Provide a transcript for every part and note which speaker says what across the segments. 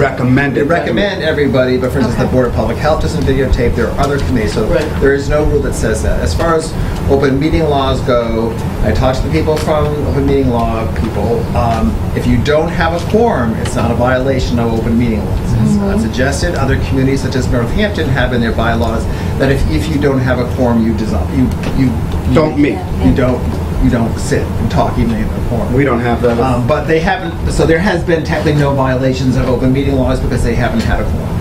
Speaker 1: recommended.
Speaker 2: They recommend everybody, but for instance, the
Speaker 3: Okay.
Speaker 2: Board of Public Health doesn't videotape, there are other committees, so
Speaker 4: Right.
Speaker 2: there is no rule that says that. As far as open meeting laws go, I talked to the people from open meeting law people, um, if you don't have a quorum, it's not a violation of open meeting laws. It's not suggested, other communities such as Northampton have in their bylaws that if, if you don't have a quorum, you dissolve, you, you. you-
Speaker 1: Don't meet.
Speaker 2: You don't, you don't sit and talk even if you have a quorum.
Speaker 1: We don't have that.
Speaker 4: Oh.
Speaker 2: Um, but they haven't, so there has been technically no violations of open meeting laws because they haven't had a quorum.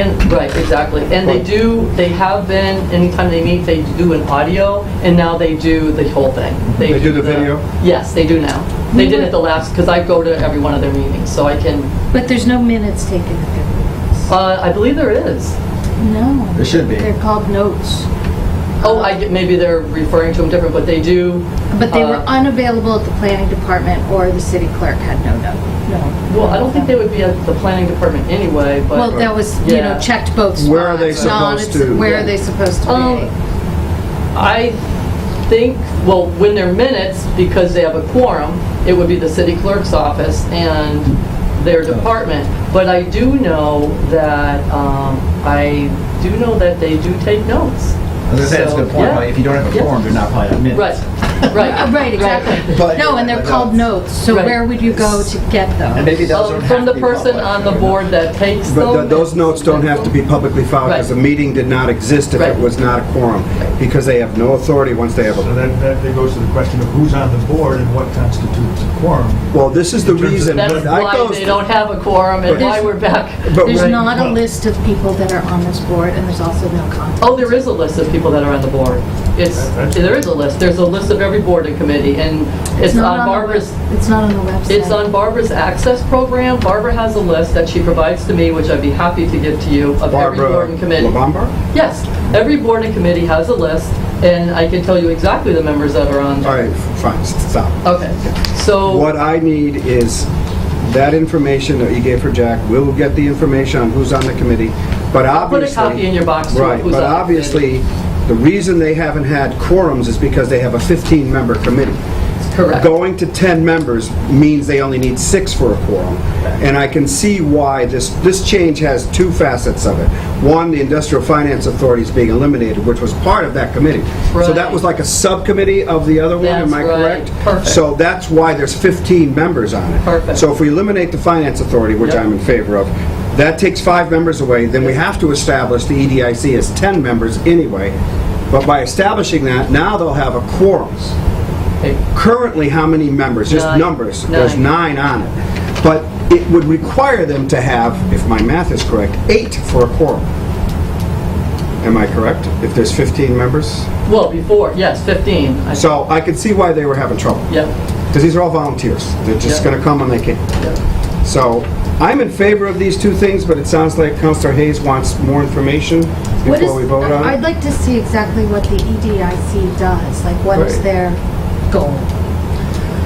Speaker 4: And, right, exactly. And they do, they have been, anytime they meet, they do an audio, and now they do the whole thing.
Speaker 1: They do the video?
Speaker 4: Yes, they do now. They did it the last, because I go to every one of their meetings, so I can,
Speaker 3: But there's no minutes taken at their meetings.
Speaker 4: uh, I believe there is.
Speaker 3: No.
Speaker 2: There should be.
Speaker 3: They're called notes.
Speaker 4: Oh, I, get- maybe they're referring to them different, but they do.
Speaker 3: But they were
Speaker 4: uh,
Speaker 3: unavailable at the planning department or the city clerk had no note. No.
Speaker 4: Well, I don't think they would be at the planning department anyway, but.
Speaker 3: Well, that was, you know,
Speaker 4: Yeah.
Speaker 3: checked both spots.
Speaker 1: Where are they
Speaker 3: Non-
Speaker 1: supposed to-
Speaker 3: Where are they supposed to
Speaker 4: Um,
Speaker 3: be? Uh,
Speaker 4: I think, well, when they're minutes, because they have a quorum, it would be the city clerk's office and their department. But I do know that, um, I do know that they do take notes.
Speaker 2: As I said, it's a good
Speaker 4: So,
Speaker 2: point,
Speaker 4: yeah.
Speaker 2: right? If you don't have a
Speaker 4: Yeah.
Speaker 2: quorum, you're not probably on minutes.
Speaker 4: Right,
Speaker 3: Uh,
Speaker 4: right.
Speaker 3: Right, exactly.
Speaker 2: But-
Speaker 3: No, and they're called notes, so
Speaker 4: Right.
Speaker 3: where would you go to get
Speaker 2: And
Speaker 3: those?
Speaker 2: maybe those
Speaker 4: Um,
Speaker 2: don't
Speaker 4: From
Speaker 2: have to
Speaker 4: the
Speaker 2: be
Speaker 4: person
Speaker 2: public.
Speaker 4: on the board that takes them.
Speaker 1: But th- those notes don't have to be publicly filed because the
Speaker 4: Right.
Speaker 1: meeting did not exist if it
Speaker 4: Right.
Speaker 1: was not a quorum, because they have no authority once they have
Speaker 5: So
Speaker 1: a...
Speaker 5: that, that that goes to the question of who's on the board and what constitutes a quorum.
Speaker 1: Well, this is the
Speaker 5: terms of-
Speaker 1: reason...
Speaker 4: That's
Speaker 1: I
Speaker 4: why
Speaker 1: goes-
Speaker 4: they don't have a quorum and
Speaker 1: But-
Speaker 4: why we're back.
Speaker 1: But
Speaker 3: There's
Speaker 1: right-
Speaker 3: not a
Speaker 5: well-
Speaker 3: list of people that are on this board, and there's also no contact.
Speaker 4: Oh, there is a list of people that are on the board. It's,
Speaker 5: That's-
Speaker 4: there is a list. There's a list of every board and committee, and it's
Speaker 3: not
Speaker 4: on
Speaker 3: the
Speaker 4: Barbara's,
Speaker 3: web- It's not on the website.
Speaker 4: It's on Barbara's access program. Barbara has a list that she provides to me, which I'd be happy to give to you, of every
Speaker 1: Barbara
Speaker 4: board and committee.
Speaker 1: Labamba?
Speaker 4: Yes, every board and committee has a list, and I can tell you exactly the members that are on.
Speaker 1: All
Speaker 4: there.
Speaker 1: right, f- fine, s- stop.
Speaker 4: Okay, so,
Speaker 1: What I need is that information that you gave for Jack. We'll get the information on who's on the committee, but
Speaker 4: put
Speaker 1: obviously...
Speaker 4: a copy in your box. to
Speaker 1: Right,
Speaker 4: who's
Speaker 1: but
Speaker 4: on the committee.
Speaker 1: obviously, the reason they haven't had quorums is because they have a 15-member committee.
Speaker 4: Correct.
Speaker 1: Going to 10 members means they only need six for a quorum. And I can see why this, this change has two facets of it. One, the Industrial Finance Authority is being eliminated, which was part of that committee. So that
Speaker 4: Right.
Speaker 1: was like a subcommittee of the other one, am I
Speaker 4: That's right.
Speaker 1: correct?
Speaker 4: Perfect.
Speaker 1: So that's why there's 15 members on it.
Speaker 4: Perfect.
Speaker 1: So if we eliminate the Finance Authority, which
Speaker 4: Yep.
Speaker 1: I'm in favor of, that takes five members away, then we have to establish the E EDIC as 10 members anyway. But by establishing that, now they'll have a quorum.
Speaker 4: Okay.
Speaker 1: Currently, how many members? Just
Speaker 4: Nine.
Speaker 1: numbers. There's
Speaker 4: Nine.
Speaker 1: nine on it. But it would require them to have, if my math is correct, eight for a quorum. Am I correct? If there's 15 members?
Speaker 4: Well, before, yes, 15. I-
Speaker 1: So I could see why they were having trouble.
Speaker 4: Yep,
Speaker 1: Because these are all volunteers. They're just
Speaker 4: Yeah.
Speaker 1: going to come when they can.
Speaker 4: yep.
Speaker 1: So I'm in favor of these two things, but it sounds like Counselor Hayes wants more information
Speaker 3: What
Speaker 1: before we
Speaker 3: is-
Speaker 1: vote on
Speaker 3: I'd
Speaker 1: it.
Speaker 3: like to see exactly what the E EDIC does, like what is
Speaker 1: Right.
Speaker 3: their goal?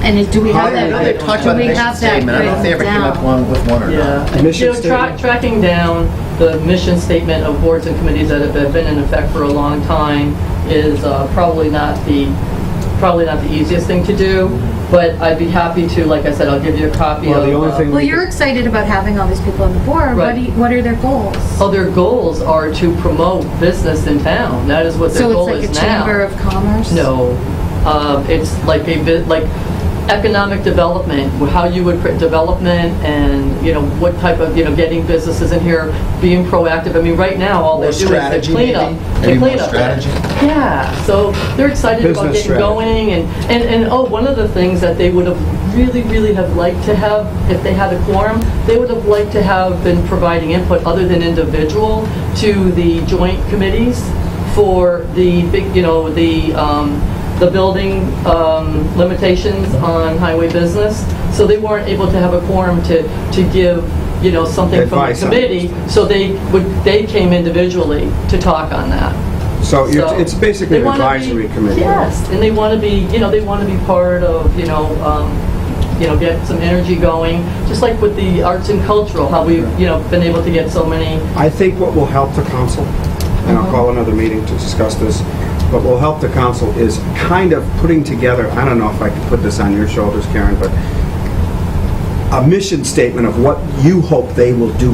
Speaker 3: And is- do we have
Speaker 2: I
Speaker 3: that?
Speaker 2: know they've talked
Speaker 3: do
Speaker 2: about
Speaker 3: we
Speaker 2: a mission
Speaker 3: have that
Speaker 2: statement, I don't know if they ever came
Speaker 3: written
Speaker 2: up one with one or not.
Speaker 4: Yeah.
Speaker 1: Mission
Speaker 4: You know, tra-
Speaker 1: statement.
Speaker 4: Tracking down the mission statement of boards and committees that have been in effect for a long time is uh, probably not the, probably not the easiest thing to do, but I'd be happy to, like I said, I'll give you a copy of.
Speaker 1: Well, the only
Speaker 4: uh,
Speaker 1: thing-
Speaker 3: Well, you're excited about having all these people on the board. What
Speaker 4: Right.
Speaker 3: do you, what are their goals?
Speaker 4: Oh, their goals are to promote business in town. That is what their
Speaker 3: So
Speaker 4: goal
Speaker 3: it's
Speaker 4: is now.
Speaker 3: like a chamber of commerce?
Speaker 4: No, Um, it's like a bit, like economic development, how you would, pr- development and, you know, what type of, you know, getting businesses in here, being proactive. I mean, right now, all they
Speaker 2: Or
Speaker 4: do is
Speaker 2: strategy,
Speaker 4: they clean up.
Speaker 2: maybe?
Speaker 4: They
Speaker 2: Maybe more
Speaker 4: clean up.
Speaker 2: strategy?
Speaker 4: Yeah, so they're excited about
Speaker 1: Business
Speaker 4: getting
Speaker 1: strategy.
Speaker 4: going and, and, and, oh, one of the things that they would have really, really have liked to have, if they had a quorum, they would have liked to have been providing input other than individual to the joint committees for the big, you know, the, um, the building, um, limitations on highway business. So they weren't able to have a quorum to, to give, you know, something from the
Speaker 1: Advice on it.
Speaker 4: committee. So they would, they came individually to talk on that.
Speaker 1: So you're-
Speaker 4: So
Speaker 1: it's basically
Speaker 4: they
Speaker 1: an
Speaker 4: wanna be-
Speaker 1: advisory committee.
Speaker 4: Yes, and they want to be, you know, they want to be part of, you know, um, you know, get some energy going, just like with the arts and cultural, how we've, you know, been able to get so many,
Speaker 1: I think what will help the council, and
Speaker 4: Uh-huh.
Speaker 1: I'll call another meeting to discuss this, what will help the council is kind of putting together, I don't know if I can put this on your shoulders, Karen, but a mission statement of what you hope they will do